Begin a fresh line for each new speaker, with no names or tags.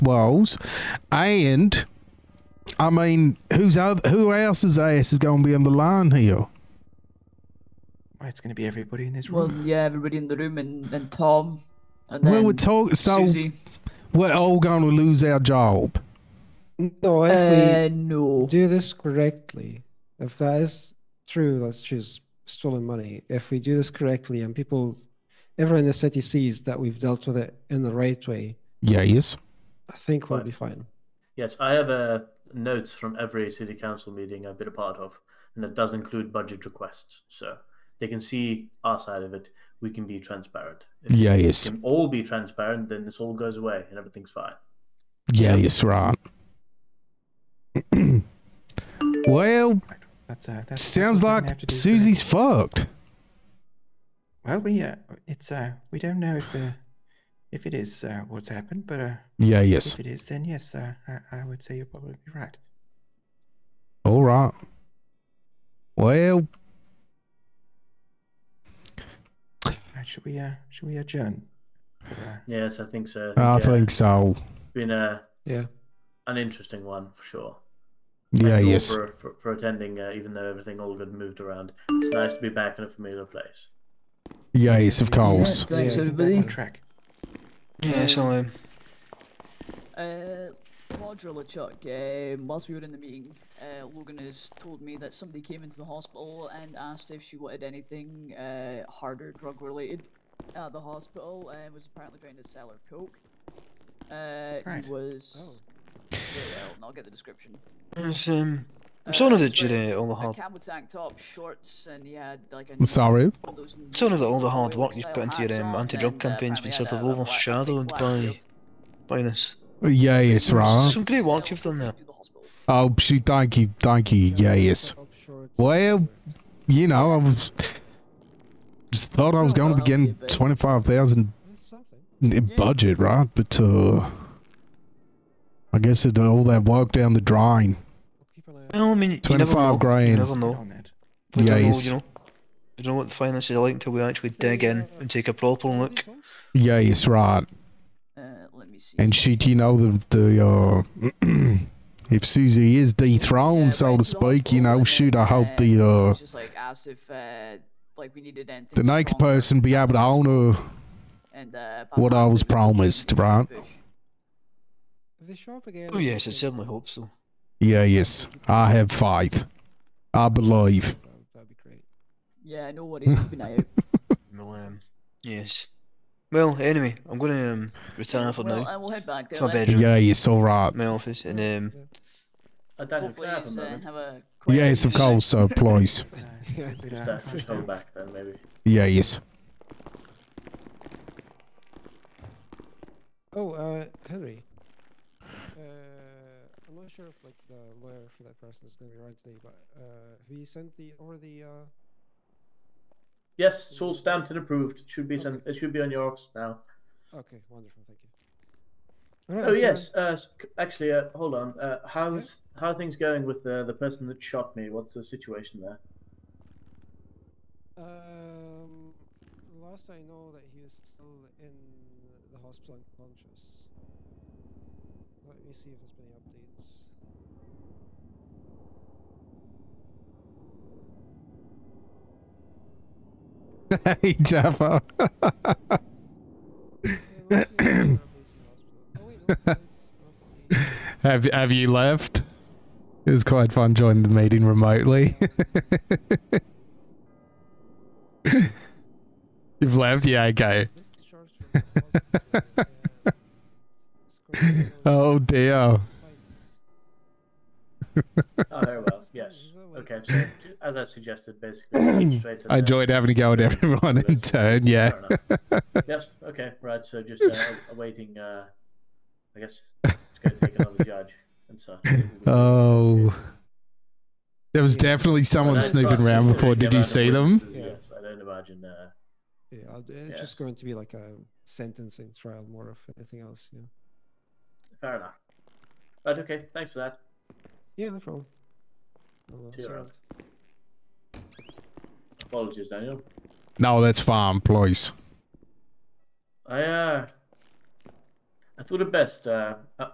walls, and I mean, who's other, who else's ass is going to be on the line here?
Well, it's going to be everybody in this room.
Well, yeah, everybody in the room and, and Tom. And then
well, we're talking, so
Susie.
we're all going to lose our job.
No, if
Uh,
we
no.
do this correctly, if that is true, let's choose stolen money. If we do this correctly and people, everyone in the city sees that we've dealt with it in the right way,
Yes.
I think we'll
Right.
be fine.
Yes, I have uh, notes from every city council meeting I've been a part of, and that does include budget requests. So they can see our side of it. We can be transparent. If
Yes.
We can all be transparent, then this all goes away and everything's fine.
Yes, right. well,
That's, uh, that's- that's
sounds
what we're gonna
like
have to do for now.
Susie's fucked.
Well, we uh, it's uh, we don't know if uh, if it is uh, what's happened, but uh,
Yeah, yes.
if it is, then yes, uh, I, I would say you're probably right.
All right. Well,
Uh, should we uh, should we adjourn? For, uh,
Yes, I think so.
I
yeah,
think so.
it's been a,
Yeah.
an interesting one for sure.
Yeah,
Thank you all
yes.
For, for, for attending, uh, even though everything all got moved around. It's nice to be back in a familiar place.
Yeah, yes, of course.
uh,
Thanks,
Yeah.
get back
everybody.
on track.
Yeah, shalom.
Um, Uh, Quadrilla Chuck, um, whilst we were in the meeting, uh, Logan has told me that somebody came into the hospital and asked if she wanted anything uh, harder drug related at the hospital and was apparently trying to sell her coke. Uh,
Right.
He was.
Oh.
Yeah, well, and I'll get the description.
It's, um,
Uh,
I'm sort of the
he's wearing
jitty, all the
A
hard.
camo tank top, shorts, and he had like a.
I'm sorry.
one of those
Sort of the, all the hard
Norwegian
work you've
style
put into
hats
your um,
on,
anti-drug
and, uh,
campaign's
apparently
been sort
had
of
a- a black- a big
overshadowed
black
by
shield.
by this.
Yeah, yes, right.
Some great work you've done there.
To the hospital.
Oh, she, thank you, thank you. Yeah, yes.
Up short.
Well, you know, I was just thought I was going to be getting twenty-five thousand
It's something.
budget, right? But uh, I guess it all that walk down the drain.
We'll keep an eye out.
Well, I mean, you never
25
know.
grand.
You never
Get
know.
on that.
We don't know,
Yes.
you know. We don't know what the finances are like until we actually dig in and take a proper look.
Yeah, yes, right.
Uh, let me see.
And she, you know, the the uh, if Susie is dethroned,
Yeah,
so
went
to
to the
speak, you
hospital
know,
and
shoot, I
then,
hope
uh,
the
it
uh
was just like asked if uh, like we needed anything.
the next
stronger. uh,
person be able to own her.
And, uh,
what I was promised, right?
If they show up again.
Oh yes, I
okay.
certainly hope so.
Yeah, yes, I have faith. I believe.
That would- That'd be great.
Yeah, no worries. Keep an eye out.
Well, um, yes. Well, anyway, I'm going to um, retire for
well,
now
I will head back there.
to my
then.
bedroom,
Yeah, yes, all right.
my office, and um,
Uh, Daniel,
Hopefully,
can I have a
he's, uh,
moment?
have a quiet
Yes, of
evening.
course, so please.
It's, uh, it's a bit, uh,
Just, uh, just hold back then, maybe.
Yeah, yes.
Oh, uh, Henry. Uh, I'm not sure if like the lawyer for that person is going to be around today, but uh, have you sent the over the? Uh...
Yes, it's all stamped and approved. It should be sent, it should be on your office now.
Okay, wonderful, thank you. Alright,
Oh
I'll see you
yes, uh, s- c- actually, uh, hold on. Uh, how's how are things going with the the person that shot me? What's the situation there?
then. Um, last I know that he was still in the hospital unconscious. Let me see if there's been any updates.
Hey, Jaffa.
Yeah, last we know, there were updates in the hospital. Oh wait, no, there is an update.
have have you left? It was quite fun joining the meeting remotely. You've left? Yeah, okay.
Discharged from the hospital, uh, Scorpio
Oh dear.
Fight.
Oh, very well. Yes. Okay. So as I suggested, basically, straight to
I
the-
enjoyed having to go at everyone in turn, yeah.
Fair enough. yes. Okay. Right. So just uh, awaiting. Uh, I guess it's going to take another judge and so.
Oh. There was definitely
I
someone
don't
snooping
trust
around
the
before. Did you
amount of
see them?
witnesses, Yes. I don't imagine. Uh,
Yeah, I'll- it's
Yes.
just going to be like a sentencing trial more of anything else. Yeah.
fair enough. Right. Okay. Thanks for that.
Yeah, no problem. I'll, uh,
Two
sort
rounds.
out.
Apologies, Daniel.
No, that's fine, please.
I uh, I thought it best. Uh,